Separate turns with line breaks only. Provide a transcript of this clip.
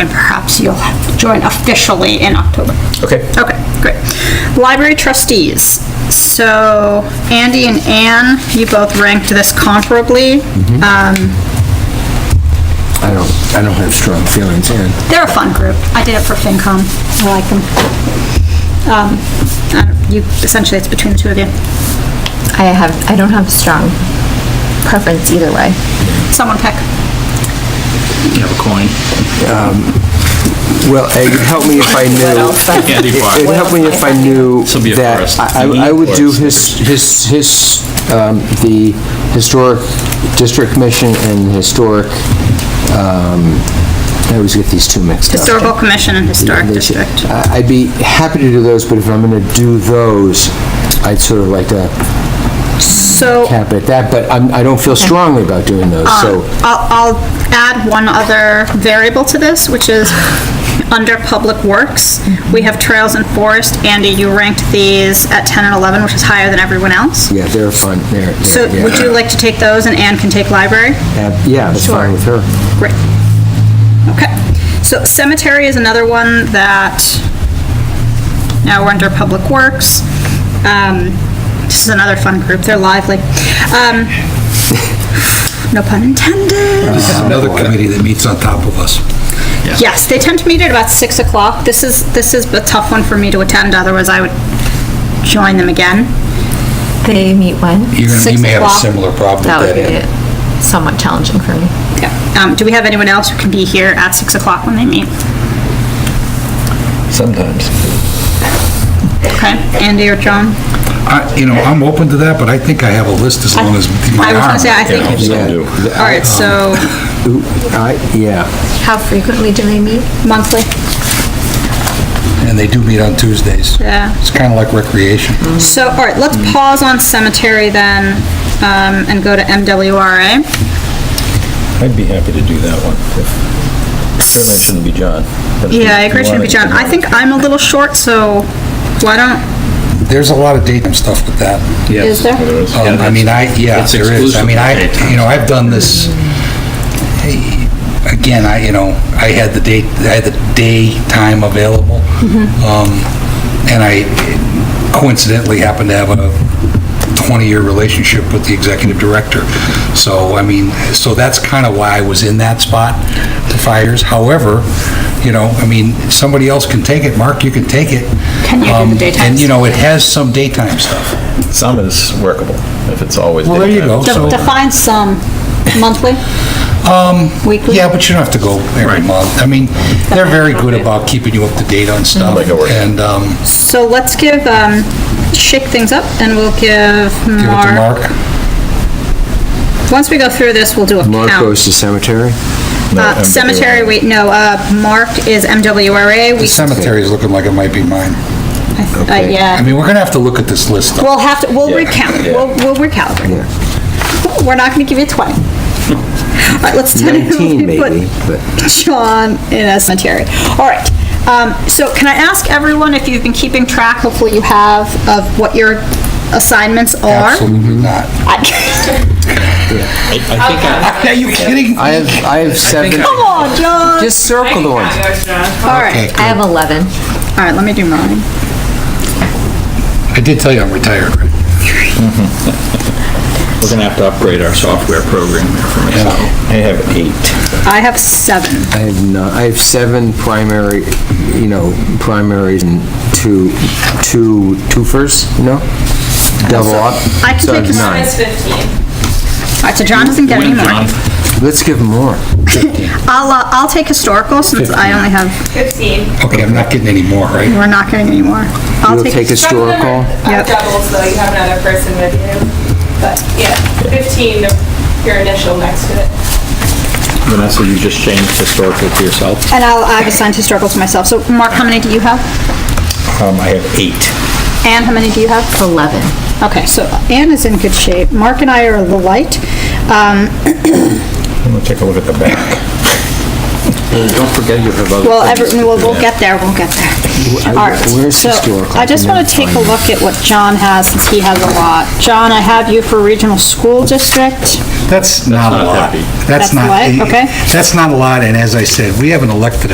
and perhaps you'll join officially in October.
Okay.
Okay, great. Library trustees. So Andy and Ann, you both ranked this comparably.
Mm-hmm.
Um,
I don't, I don't have strong feelings, Ann.
They're a fun group. I did it for FinCom. I like them. Um, I don't- You, essentially, it's between the two of you.
I have, I don't have strong preference either way.
Someone pick.
You have a coin.
Well, it'd help me if I knew,
Candy bar.
it'd help me if I knew
This'll be a
that
first.
I- I I would do his, his, his, um, the Historic District Commission and Historic, um, I always get these two mixed up.
Historical Commission and Historic
They should-
District.
I- I'd be happy to do those, but if I'm going to do those, I'd sort of like to
So
cap it at that, but I'm, I don't feel strongly about doing those, so.
I'll, I'll add one other variable to this, which is under Public Works, we have Trails and Forest. Andy, you ranked these at 10 and 11, which is higher than everyone else.
Yeah, they're fun, they're,
So
yeah.
would you like to take those and Ann can take Library?
Uh, Yeah, that's fine
Sure.
with her.
Great. Okay. So cemetery is another one that, now we're under Public Works. Um, This is another fun group, they're lively. Um, No pun intended.
It's another committee that meets on top of us.
Yes, they tend to meet at about 6 o'clock. This is, this is a tough one for me to attend, otherwise I would join them again.
They meet when?
You're gonna- You may have a
Six o'clock.
similar problem
That
with
would
that. Ed.
be somewhat challenging for me.
Yeah. Um, Do we have anyone else who can be here at 6 o'clock when they meet?
Sometimes.
Okay, Andy or John?
I- You know, I'm open to that, but I think I have a list as long as
I
my
was
arm.
gonna say, I think,
Yeah.
all right, so
I, yeah.
How frequently do they meet?
monthly.
And they do meet on Tuesdays.
Yeah.
It's kind of like recreation.
So, all right, let's pause on cemetery then, um, and go to MWRA.
I'd be happy to do that one. if- Certainly it shouldn't be John. but if you-
Yeah, I
you
agree, it should
want
be
it,
John.
you
I
want
think I'm a little short, so why don't,
There's a lot of daytime stuff with that.
is there?
Um, I mean, I, yeah,
It's
there is. I mean, I,
exclusive
you know, I've done this, hey, again, I, you know, I had the date, I had the daytime available.
Mm-hmm.
Um, And I coincidentally happened to have a 20-year relationship with the executive director. So, I mean, so that's kind of why I was in that spot for five years. However, you know, I mean, somebody else can take it. Mark, you can take it.
Can you do the
Um,
daytime
And, you know, it has some daytime stuff.
Some is workable, if it's always.
Well, there you
daytime.
go.
De-
So-
Define some, monthly? Weekly?
Um, Yeah, but you don't have to go every month. I mean, they're very good about keeping you up to date on stuff.
Like a workshop.
And um,
So let's give, um, shake things up and we'll give
give it to
Mark.
Mark.
Once we go through this, we'll do a
Mark
count.
goes to cemetery?
No,
Uh,
I'm-
cemetery, wait, no, uh, Mark is MWRA.
The
We,
cemetery is looking like it might be mine.
uh,
okay.
I
yeah.
mean, we're going to have to look at this list. though.
We'll have to, we'll
Yeah,
recount,
yeah.
we'll, we'll recalibrate. We're not gonna give you 20. All right, let's tentatively
19
put
maybe, but
John in a cemetery. All right, um, so can I ask everyone if you've been keeping track, hopefully you have, of what your assignments are?
Absolutely not.
I-
I think I-
Are you kidding?
I have, I have seven,
Come on, John!
just circle the ones.
All right,
Okay,
I have 11.
all right, let me do mine.
I did tell you I'm retired. right?
We're gonna have to upgrade our software program here for me, so.
I have eight.
I have seven.
I have not, I have seven primary, you know, primaries and two, two, two firsts, you know? Double up.
I can
So
take
have
a
nine.
All right, so John doesn't get any
Win,
more.
John.
Let's give him more.
I'll, uh, I'll take historical since I only have,
Okay, I'm not getting any more, right?
we're not getting any more. I'll
You'll take
take,
historical.
Yep.
Double, so you have another person with you. But yeah, 15, your initial next to it.
Vanessa, you just changed historical to yourself.
and I'll, I've assigned historical to myself. So Mark, how many do you have?
Um, I have eight.
Anne, how many do you have?
11.
Okay, so Anne is in good shape. Mark and I are the light. Um,
I'm gonna take a look at the back.
Don't forget you have
Well, every, we'll, we'll get there, we'll get there. All right,
where's
so
historical?
I just
I
want to
didn't
take a
find it.
look at what John has, since he has a lot. John, I have you for regional school district.
That's not a
not
lot.
that big.
That's
That's not.
what? Okay.
That's not a lot, and as I said, we have an elected